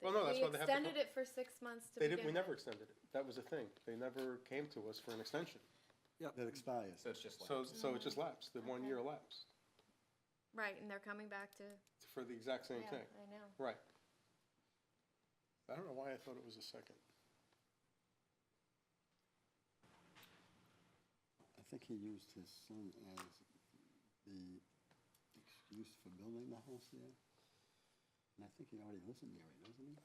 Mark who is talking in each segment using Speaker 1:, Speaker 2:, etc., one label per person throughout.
Speaker 1: Well,
Speaker 2: They-
Speaker 1: no, that's
Speaker 2: we
Speaker 1: why they have the
Speaker 2: extended
Speaker 1: co-
Speaker 2: it for six months to
Speaker 1: They didn't, we
Speaker 2: begin
Speaker 1: never
Speaker 2: with.
Speaker 1: extended it. That was the thing. They never came to us for an extension.
Speaker 3: that expires.
Speaker 4: So it's just like.
Speaker 1: So, so it just lapsed, the one
Speaker 2: Mm-hmm. Okay.
Speaker 1: year lapsed
Speaker 2: Right, and they're coming back to,
Speaker 1: for the exact same
Speaker 2: yeah,
Speaker 1: thing.
Speaker 2: I know.
Speaker 1: Right. I don't know why I thought it was a second.
Speaker 3: I think he used his son as the excuse for building the house there. And I think he already lives in there, doesn't he?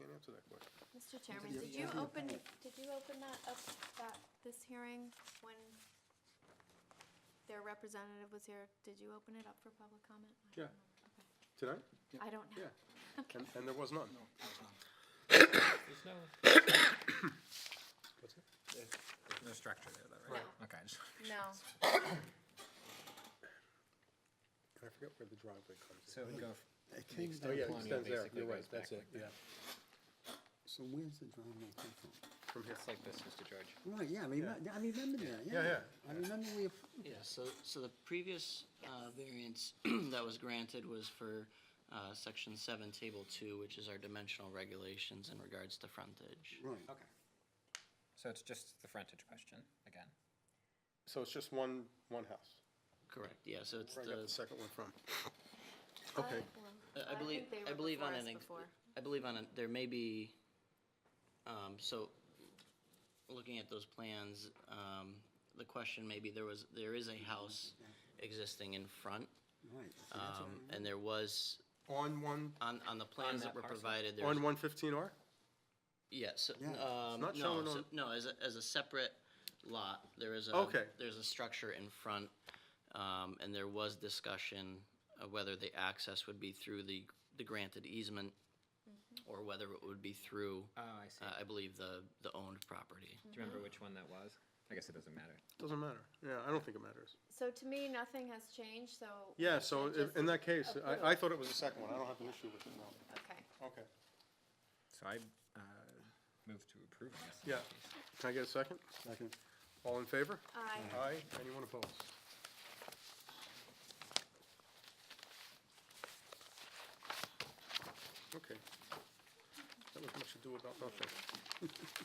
Speaker 1: Can't answer that question.
Speaker 2: Mr. Chairman,
Speaker 3: Yeah,
Speaker 2: did you
Speaker 3: yeah.
Speaker 2: open, did you open that up, that, this hearing when their representative was here? Did you open it up for public comment? I
Speaker 1: Yeah.
Speaker 2: don't remember.
Speaker 1: Tonight?
Speaker 2: Okay. I don't know.
Speaker 1: And, and there was none.
Speaker 4: There's no. There's no structure there, though, right? Okay. I just-
Speaker 2: No,
Speaker 1: I forget where the driveway comes in.
Speaker 4: So it would go. f-
Speaker 3: came
Speaker 1: Oh,
Speaker 3: down,
Speaker 1: yeah, it
Speaker 4: Colonial
Speaker 1: extends there.
Speaker 4: basically
Speaker 1: You're right.
Speaker 4: goes back
Speaker 1: That's it, yeah.
Speaker 3: so where's the driveway come from?
Speaker 1: From here.
Speaker 4: It's like this, Mr. George.
Speaker 3: Right, yeah, I remember, I remember that, yeah.
Speaker 1: Yeah, yeah.
Speaker 3: I remember we approved.
Speaker 5: Yeah, so, so the previous uh, variance that was granted was for uh, section seven, table two, which is our dimensional regulations in regards to frontage.
Speaker 3: Right.
Speaker 4: Okay. So it's just the frontage question again.
Speaker 1: So it's just one, one house.
Speaker 5: Correct, yeah, so it's
Speaker 1: Where I got the
Speaker 5: the,
Speaker 1: second one from.
Speaker 2: I,
Speaker 1: Okay.
Speaker 2: well,
Speaker 5: Uh, I
Speaker 2: I
Speaker 5: believe,
Speaker 2: think they
Speaker 5: I
Speaker 2: were
Speaker 5: believe on
Speaker 2: before us
Speaker 5: an, ex-
Speaker 2: before.
Speaker 5: I believe on, an- there may be, um, so, looking at those plans, um, the question may be, there was, there is a house existing in front,
Speaker 3: Right.
Speaker 5: um, and there was,
Speaker 1: On one,
Speaker 5: on, on the plans
Speaker 4: that
Speaker 5: that were
Speaker 4: parcel?
Speaker 5: provided, there was
Speaker 1: on one fifteen R?
Speaker 5: Yes,
Speaker 3: Yeah. It's
Speaker 5: um,
Speaker 1: not
Speaker 5: no,
Speaker 1: shown
Speaker 5: so-
Speaker 1: on-
Speaker 5: no, as a, as a separate lot, there is a.
Speaker 1: Okay.
Speaker 5: There's a structure in front, um, and there was discussion of whether the access would be through the, the granted easement or whether it would be through,
Speaker 4: Oh,
Speaker 5: uh,
Speaker 4: I see.
Speaker 5: I believe the, the owned property.
Speaker 4: Do you remember which one that was? I guess it doesn't matter.
Speaker 1: Doesn't matter. Yeah, I don't think it matters.
Speaker 2: So to me, nothing has changed, so.
Speaker 1: Yeah,
Speaker 2: we
Speaker 1: so
Speaker 2: should
Speaker 1: i-
Speaker 2: just-
Speaker 1: in that case,
Speaker 2: approve.
Speaker 1: I, I thought it was the second one. I don't have an issue with it, no.
Speaker 2: Okay,
Speaker 1: Okay.
Speaker 4: So I uh, move to approve, I guess. in
Speaker 1: Yeah.
Speaker 4: that case.
Speaker 1: Can I get a second?
Speaker 3: Second.
Speaker 1: All in favor?
Speaker 2: I,
Speaker 1: Aye. Anyone opposed? Okay. That was much ado about nothing.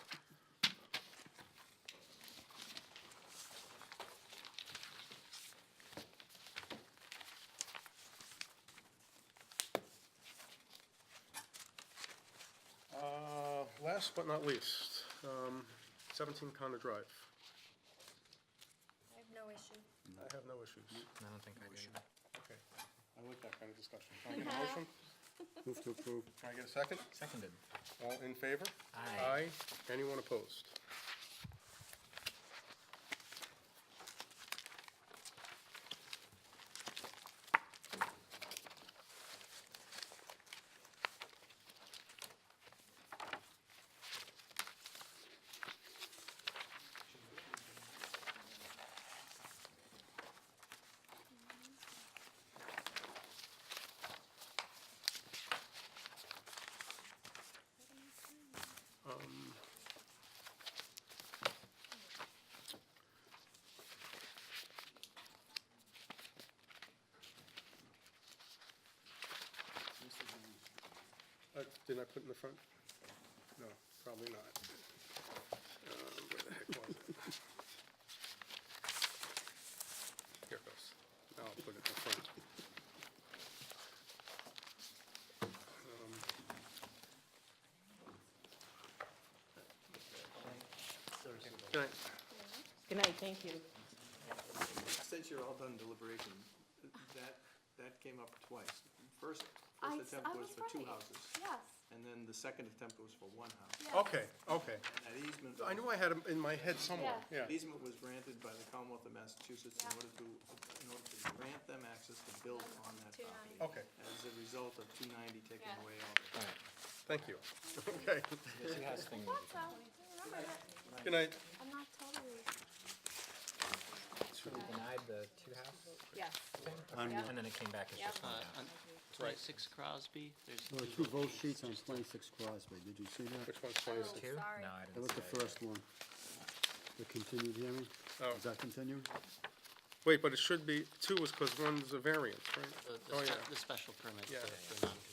Speaker 1: Uh, Last but not least, um, 17 Conner Drive.
Speaker 2: I have no issue.
Speaker 1: I have no issues.
Speaker 4: I don't think I do. either.
Speaker 1: Okay, I like that kind of discussion. Can I get a motion?
Speaker 3: Move to approve.
Speaker 1: Can I get a second?
Speaker 4: Seconded.
Speaker 1: All in favor?
Speaker 4: Aye.
Speaker 1: Anyone opposed? Um, Uh, Didn't I put in the front? No, probably not. Um, Where the heck was it? Here it goes. Now I'll put it in the front. Um, Can I,
Speaker 6: Good night, thank you.
Speaker 7: Since you're all done deliberation, that, that came up twice. First,
Speaker 2: I
Speaker 7: first
Speaker 2: s-
Speaker 7: attempt
Speaker 2: I
Speaker 7: was
Speaker 2: was
Speaker 7: for two
Speaker 2: right.
Speaker 7: houses,
Speaker 2: Yes,
Speaker 7: and then the second attempt was for one house.
Speaker 2: yes.
Speaker 1: okay, okay.
Speaker 7: And that easement,
Speaker 1: I knew I had him in my head somewhere, yeah.
Speaker 7: that easement was granted by the Commonwealth of Massachusetts in order to, in order to grant them access to build on that property.
Speaker 2: 290.
Speaker 1: Okay,
Speaker 7: As a result of two ninety taking
Speaker 2: Yeah.
Speaker 7: away all the.
Speaker 4: All right.
Speaker 1: thank you. Okay,
Speaker 4: The two house thing.
Speaker 2: That's all. I remember that.
Speaker 1: good night.
Speaker 2: I'm not totally.
Speaker 4: We denied the two house
Speaker 2: Yes.
Speaker 4: thing,
Speaker 2: Um, Yeah.
Speaker 4: and then it came back as just
Speaker 5: Uh,
Speaker 4: one house.
Speaker 5: on Twenty-six Crosby, there's.
Speaker 3: There were two vote sheets on twenty-six Crosby, did you see that?
Speaker 1: Which one's twenty-six?
Speaker 2: Oh,
Speaker 4: Two?
Speaker 2: Sorry.
Speaker 4: No, I didn't.
Speaker 3: That was
Speaker 4: see
Speaker 3: the
Speaker 4: yet.
Speaker 3: first one. The continued hearing?
Speaker 1: Oh.
Speaker 3: Is that continued?
Speaker 1: Wait, but it should be, two is because one's a variance,
Speaker 5: the-
Speaker 1: right?
Speaker 5: the
Speaker 1: Oh,
Speaker 5: spe-
Speaker 1: yeah.
Speaker 5: The special permit
Speaker 1: Yeah.
Speaker 5: for- for non